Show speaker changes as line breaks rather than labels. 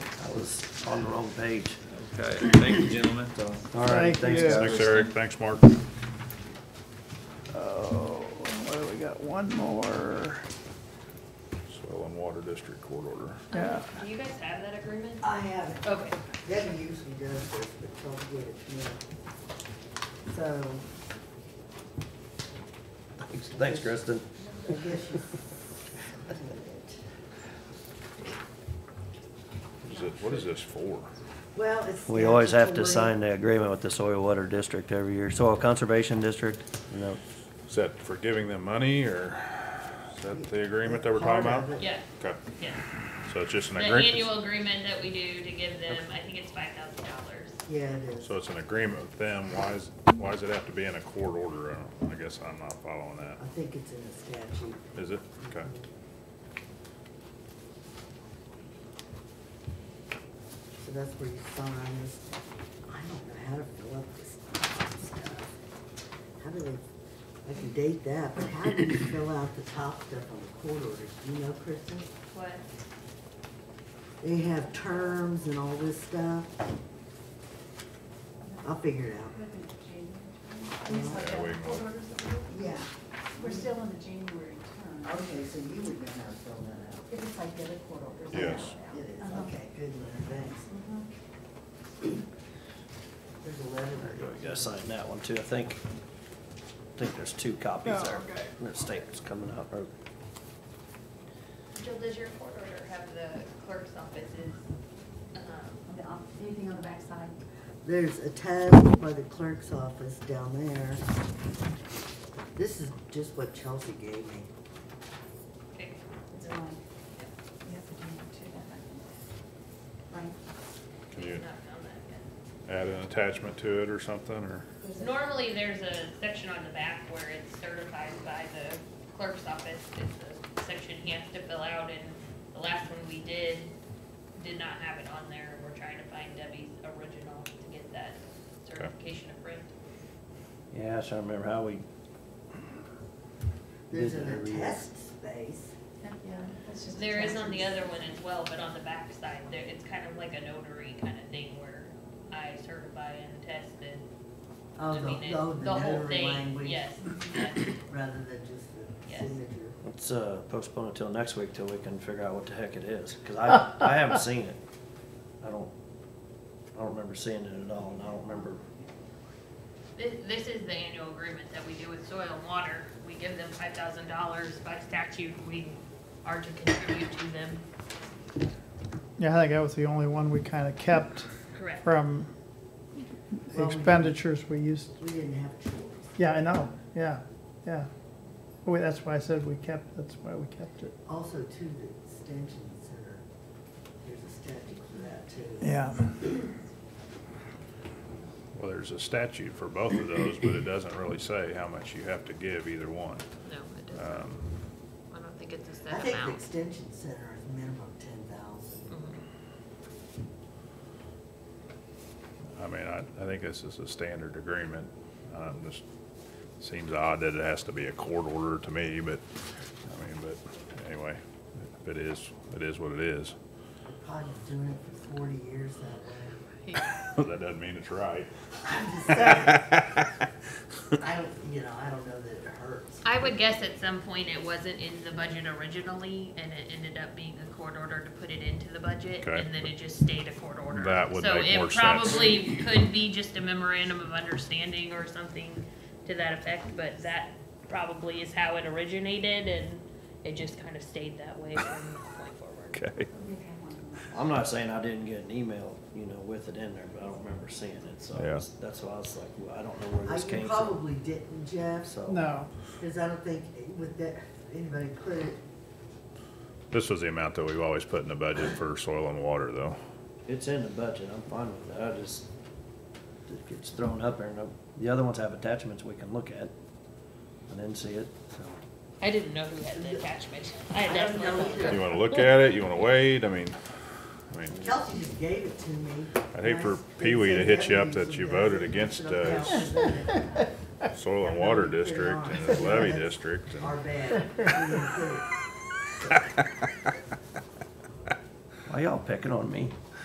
on the wrong page.
Okay, thank you, gentlemen.
All right,
Thank
thanks,
you.
guys.
Thanks, Eric. Thanks, Mark.
Oh, well, we got one more,
Soil and Water District Court order.
yeah.
Do you guys have that agreement?
I haven't.
Okay,
Debbie usually does this, but she'll get it to me. So,
Thanks- Thanks, Kristen.
I guess she's.
Is it, what is this for?
Well, it's.
We always have to sign the agreement with the Soil Water District every year, Soil Conservation District, you know,
Is that for giving them money or is that the agreement that we're talking about?
yeah,
Okay,
yeah.
so it's just an
The
agreement,
annual agreement that we do to give them, I think it's five thousand dollars.
Yeah, it is.
so it's an agreement with them. Why is, why does it have to be in a court order? I don't- I guess I'm not following that.
I think it's in the statute.
Is it? Okay.
So that's where you sign this. I don't know how to fill up this stuff. How do they, I can date that, but how do you fill out the top stuff on the court orders? Do you know, Kristen?
What?
They have terms and all this stuff. I'll figure it out.
Yeah, we can-
Yeah,
We're still on the January term.
okay, so you would know how to fill that out.
If it's like the other court orders.
Yes.
It is,
Uh-huh.
okay, good, Leonard, thanks.
Mhm.
There's a letter.
we gotta sign that one too, I think. I think there's two copies there. The state's coming out, or
Jill, does your court order have the clerk's offices? um,
On the op- Anything on the backside?
There's a tab by the clerk's office down there. This is just what Chelsea gave me.
Okay.
It's fine. You have to do it too, that might be. Right?
Can you
It's not found that yet.
add an attachment to it or something or?
There's a-
Normally, there's a section on the back where it's certified by the clerk's office. It's a section he has to fill out, and the last one we did, did not have it on there. We're trying to find Debbie's original to get that certification approved.
yeah, I trying to remember how we,
There's
Did
an
it read?
attest space.
Yeah, that's just.
There is on the
attachments.
other one as well, but on the back side, there, it's kind of like a notary kind of thing where I certify and attest and,
Oh,
I
the,
mean, it-
oh,
the whole
notary
thing,
language
yes. yes.
Rather than just the
Yes.
signature.
let's uh, postpone it till next week till we can figure out what the heck it is, cause I, I haven't seen it. I don't, I don't remember seeing it at all, and I don't remember,
This, this is the annual agreement that we do with soil and water. We give them five thousand dollars by statute, we are to contribute to them.
Yeah, I think that was the only one we kind of kept
Correct.
from
Well, we-
expenditures we used.
We didn't have a choice.
Yeah, I know, yeah, yeah. Well, that's why I said we kept, that's why we kept it.
Also too, the extension center, there's a statute for that too.
Yeah.
Well, there's a statute for both of those, but it doesn't really say how much you have to give either one.
No, it doesn't.
Um,
I don't think it's a
I
set
think the
amount. Mm-hmm.
extension center is minimum ten thousand.
I mean, I, I think this is a standard agreement. Um, just seems odd that it has to be a court order to me, but, I mean, but anyway, if it is, it is what it is.
Probably was doing it for forty years that way.
That doesn't mean it's right.
I'm just saying. I don't, you know, I don't know that it hurts.
I would guess at some point it wasn't in the budget originally, and it ended up being a court order to put it into the budget,
Okay.
and then it just stayed a court order.
That would make more sense.
So it probably could be just a memorandum of understanding or something to that effect, but that probably is how it originated, and it just kind of stayed that way from that point forward.
Okay.
We've had one.
I'm not saying I didn't get an email, you know, with it in there, but I don't remember seeing it, so I
Yeah.
was- that's why I was like, well, I don't know where
I,
this
you
came from.
probably didn't, Jeff,
So.
No,
because I don't think eh, with that, anybody put it,
This was the amount that we've always put in the budget for soil and water, though.
It's in the budget, I'm fine with that, I just, it gets thrown up there, and the other ones have attachments we can look at. I didn't see it, so,
I didn't know who had the attachment. I
I don't
definitely
know
You
either.
wanna look at it? You wanna wait? I mean, I mean,
Kelsey just gave it to me.
I'd hate for Pee Wee to hit you up that you voted against, uh, soil and water district and the levy district and.
Our bad. We didn't put it.
why y'all picking on me?